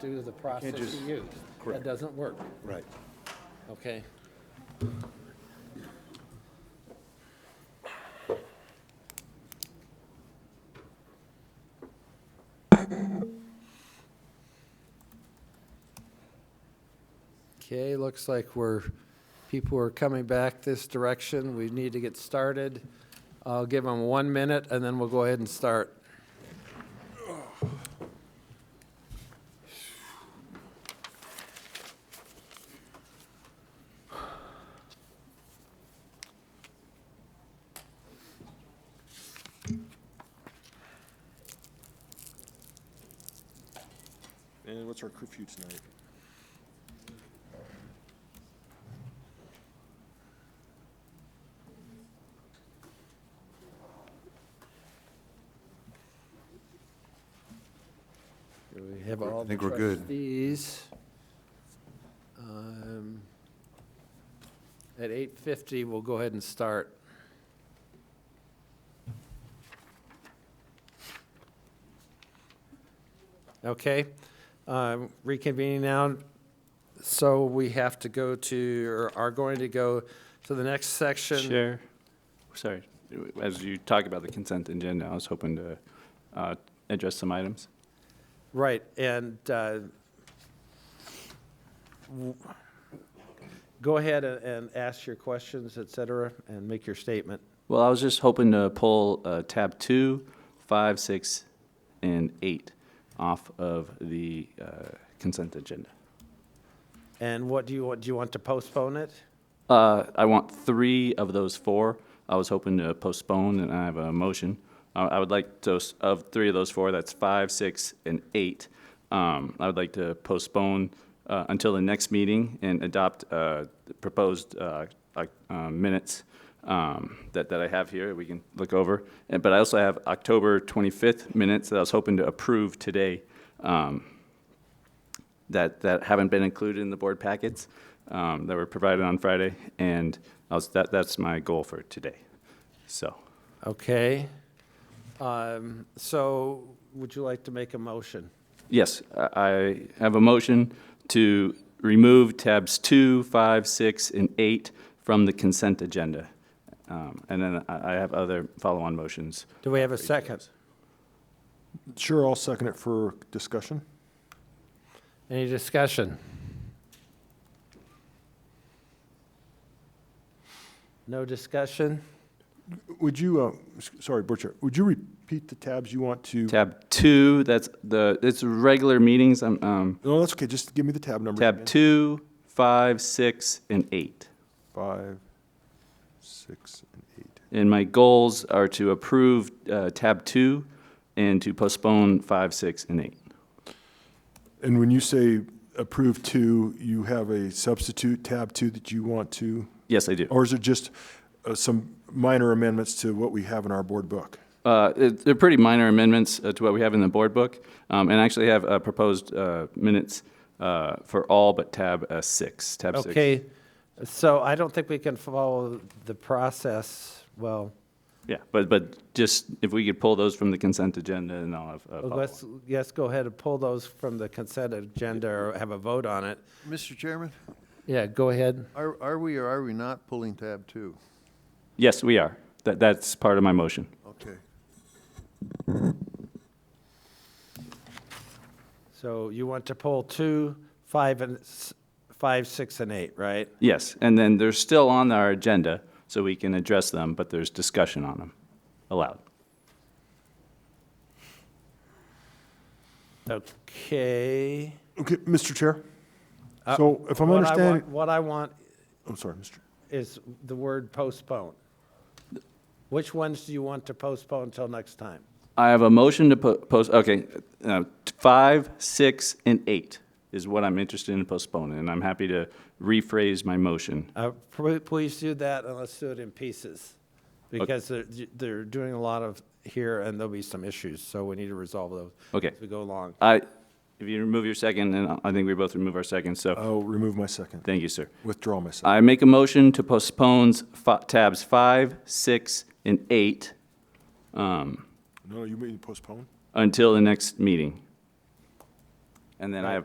due to the process just- you use. That correct. doesn't work, Right. okay? Okay, looks like we're, people are coming back this direction. We need to get started. I'll give them one minute, and then we'll go ahead and start. And what's our curfew tonight? Do we have all I the think we're good. trustees? Um, At 8:50, we'll go ahead and start. Okay, um, reconvening now. So we have to go to, or are going to go to the next section. Chair, sorry, as you talk about the consent agenda, I was hoping to uh, address some items. Right, and uh, w- go ahead a- and ask your questions, et cetera, and make your statement. Well, I was just hoping to pull uh, tab two, five, six, and eight off of the uh, consent agenda. And what do you, want? do you want to postpone it? Uh, I want three of those four. I was hoping to postpone, and I have a motion. Uh, I would like to, of three of those four, that's five, six, and eight, um, I would like to postpone uh, until the next meeting and adopt uh, the proposed uh, oc- uh, minutes um, that that I have here, we can look over. And- But I also have October 25th minutes that I was hoping to approve today um, that, that haven't been included in the board packets um, that were provided on Friday, and I was, that, that's my goal for today. So, Okay. Um, So would you like to make a motion? yes, I I have a motion to remove tabs two, five, six, and eight from the consent agenda. Um, And then I I have other follow-on motions. Do we have a second? Sure, I'll second it for discussion. Any discussion? No discussion? Would you, uh, s- sorry, Butcher, would you repeat the tabs you want to? Tab two, that's the, it's regular meetings, um, um, No, that's okay, just give me the tab number. tab two, five, six, and eight. Five, six, and eight. And my goals are to approve uh, tab two and to postpone five, six, and eight. And when you say approve two, you have a substitute tab two that you want to? Yes, I do. Or is it just uh, some minor amendments to what we have in our board book? Uh, it- They're pretty minor amendments uh, to what we have in the board book, um, and I actually have uh, proposed uh, minutes uh, for all but tab uh, six, tab six. Okay, so I don't think we can follow the process, well, Yeah, but, but just if we could pull those from the consent agenda, and I'll have a Well, follow-up. Let's, yes, go ahead and pull those from the consent agenda or have a vote on it. Mr. Chairman, Yeah, go ahead. are, are we or are we not pulling tab two? Yes, we are. That, that's part of my motion. Okay. So you want to pull two, five, and, s- five, six, and eight, right? Yes, and then they're still on our agenda, so we can address them, but there's discussion on them allowed. Okay. Okay, Mr. Chair? Uh, So if I'm What I want- understanding, What I want I'm sorry, Mr. is the word postpone. Which ones do you want to postpone until next time? I have a motion to po- post, okay, uh, t- five, six, and eight is what I'm interested in postponing, and I'm happy to rephrase my motion. Uh, pl- Please do that, and let's do it in pieces, because they're, they're doing a lot of here, and there'll be some issues, so we need to resolve those. Okay. As we go along. I, if you remove your second, and I think we both remove our second, so, I'll remove my second, thank you, sir. withdraw my second. I make a motion to postpone fi- tabs five, six, and eight um, No, you mean postpone? until the next meeting. And then I have